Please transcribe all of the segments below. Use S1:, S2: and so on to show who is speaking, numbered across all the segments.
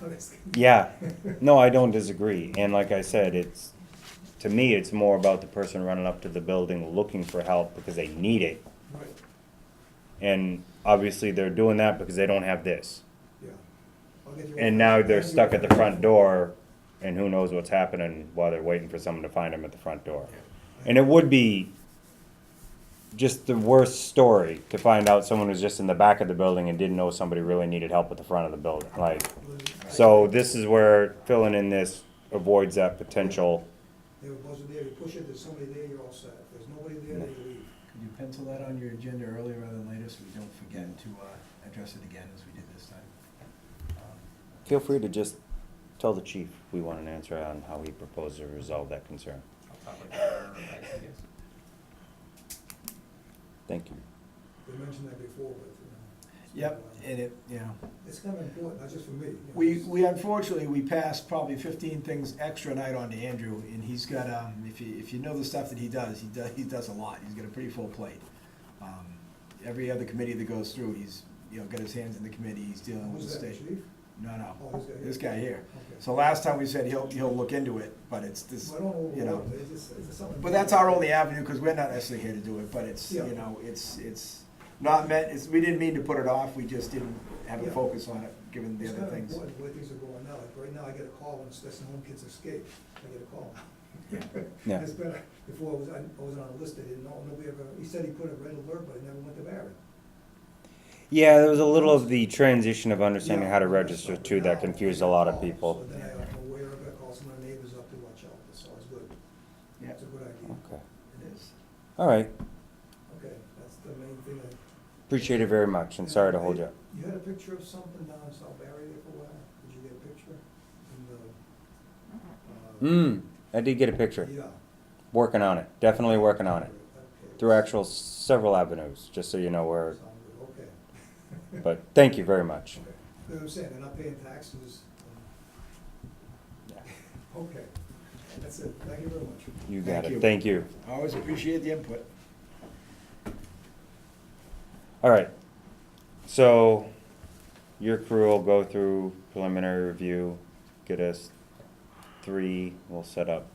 S1: how this can be.
S2: Yeah, no, I don't disagree, and like I said, it's, to me, it's more about the person running up to the building looking for help because they need it.
S1: Right,
S2: And obviously, they're doing that because they don't have this.
S1: yeah. I'll get you-
S2: And now they're stuck at the front door, and who knows what's happening while they're waiting for someone to find them at the front door. And it would be just the worst story to find out someone was just in the back of the building and didn't know somebody really needed help at the front of the building, like. So this is where filling in this avoids that potential.
S1: They were buzzing there, you push it, there's somebody there, you're all set. If there's nobody there, they leave.
S3: Could you pencil that on your agenda earlier rather than later so we don't forget to uh, address it again as we did this time? Um,
S2: Feel free to just tell the chief we want an answer on how he proposes to resolve that concern. Thank you.
S1: They mentioned that before, but, you know.
S3: Yep, and it, yeah.
S1: It's kind of important, not just for me. you know,
S3: We,
S1: it's-
S3: we unfortunately, we passed probably fifteen things extra night on to Andrew, and he's got, um, if you, if you know the stuff that he does, he does, he does a lot, he's got a pretty full plate. Um, Every other committee that goes through, he's, you know, got his hands in the committee, he's dealing with the
S1: Who's that,
S3: state.
S1: chief?
S3: No,
S1: Oh,
S3: no,
S1: this guy here?
S3: this guy here.
S1: Okay.
S3: So last time we said he'll, he'll look into it, but it's this,
S1: Well, I don't
S3: you know.
S1: know, it's just, it's just something.
S3: But that's our only avenue, because we're not necessarily here to do it, but it's, you
S1: Yeah.
S3: know, it's, it's not meant, it's, we didn't mean to put it off, we just didn't have a
S1: Yeah.
S3: focus on it, given the
S1: It's
S3: other
S1: kind of
S3: things.
S1: important where things are going now, like right now, I get a call when Stetson Home Kids Escape, I get a call.
S2: Yeah.
S1: It's been, before I was, I wasn't on the list, I didn't know, nobody ever, he said he put a red alert, but I never went to Barry.
S2: Yeah, there was a little of the transition of understanding how to register too that confused a lot of people.
S1: So then I was aware of it, called some of my neighbors up to watch out, so it's good,
S3: Yeah,
S1: it's a good idea.
S2: Okay,
S3: it is.
S2: all right,
S1: Okay, that's the main thing. I-
S2: appreciate it very much, and sorry to hold you up.
S1: You had a picture of something down in South Barry there for a while, did you get a picture? In the, uh,
S2: Hmm, I did get a picture,
S1: Yeah.
S2: working on it, definitely working on it,
S1: Okay.
S2: through actual several avenues, just so you know where,
S1: Sounds good, okay.
S2: but thank you very much.
S1: Okay. You know what I'm saying, they're not paying taxes. um,
S2: Yeah.
S1: Okay, that's it, thank you very much.
S2: You got
S3: Thank
S2: it,
S3: you.
S2: thank you.
S3: I Always appreciate the input.
S2: All right, so your crew will go through preliminary review, get us three, we'll set up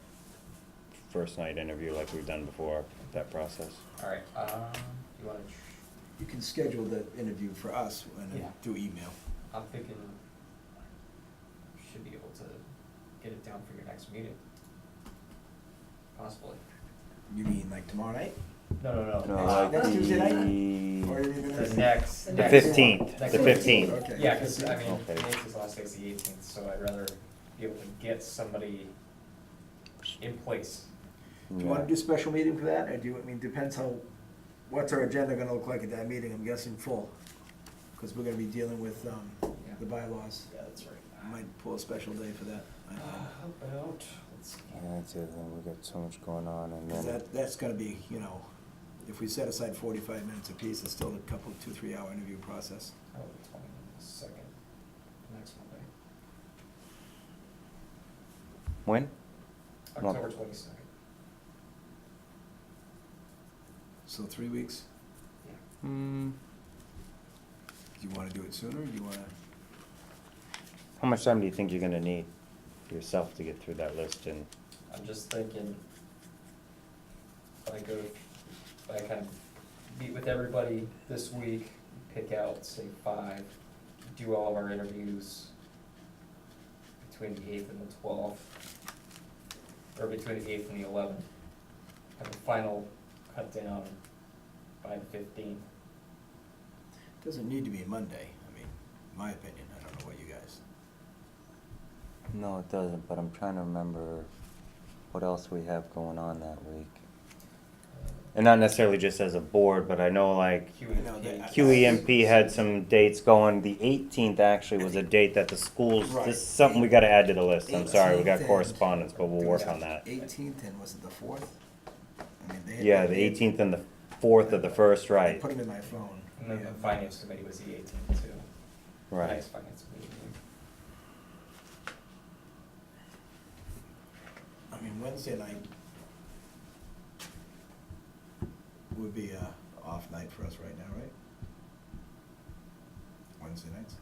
S2: first night interview like we've done before, that process.
S4: Alright, um, you wanna, tr-
S3: You can schedule the interview for us and
S4: Yeah.
S3: then do email.
S4: I'm thinking, should be able to get it down for your next meeting. Possibly.
S3: You mean like tomorrow night?
S4: No, no, no.
S2: No,
S4: next-
S2: like
S3: Next Tuesday Or
S2: the
S3: even
S4: The
S3: next-
S4: next,
S5: The
S2: the
S4: next.
S2: fifteenth,
S4: next
S2: the
S4: one.
S2: fifteenth.
S3: Okay.
S4: Yeah, cause I mean,
S2: Okay.
S4: Nancy's last day's the eighteenth, so I'd rather be able to get somebody in place.
S3: Do you wanna do special meeting for that, or do you, I mean, depends how, what's our agenda gonna look like at that meeting, I'm guessing full. Cause we're gonna be dealing with, um,
S4: Yeah.
S3: the bylaws.
S4: Yeah, that's right.
S3: I might pull a special day for that. I don't know.
S4: Uh, How about, let's,
S2: Yeah, that's it, then we got so much going on and
S3: 'Cause
S2: then,
S3: That, that's gonna be, you know, if we set aside forty-five minutes apiece, it's still a couple, two, three hour interview process.
S4: how about the twenty-second, next Monday,
S2: when? Month.
S4: October twenty-second.
S3: So three weeks,
S4: Yeah.
S2: Hmm,
S3: do you wanna do it sooner, do you wanna,
S2: how much time do you think you're gonna need for yourself to get through that list and,
S4: I'm just thinking, if I go, if I kind of meet with everybody this week, pick out, say, five, do all of our interviews between the eighth and the twelfth, or between the eighth and the eleventh, have a final cut down by the fifteenth.
S3: doesn't need to be Monday, I mean, my opinion, I don't know what you guys.
S2: no, it doesn't, but I'm trying to remember what else we have going on that week. And not necessarily just as a board, but I know like
S4: E
S3: know that-
S2: QEMP had some dates going. The eighteenth actually was a date that the schools, this is something we gotta add to the list. I'm sorry, we got correspondence, but we'll work on that.
S3: Eighteenth and was it the fourth? I mean, they-
S2: Yeah, the eighteenth and the fourth of the first,
S3: I
S2: right,
S3: Put them in my phone.
S4: And then the
S3: Yeah.
S4: finance committee was the eighteenth too.
S2: right.
S4: Next finance committee.
S3: I mean, Wednesday night would be a off night for us right now, right? Wednesday nights?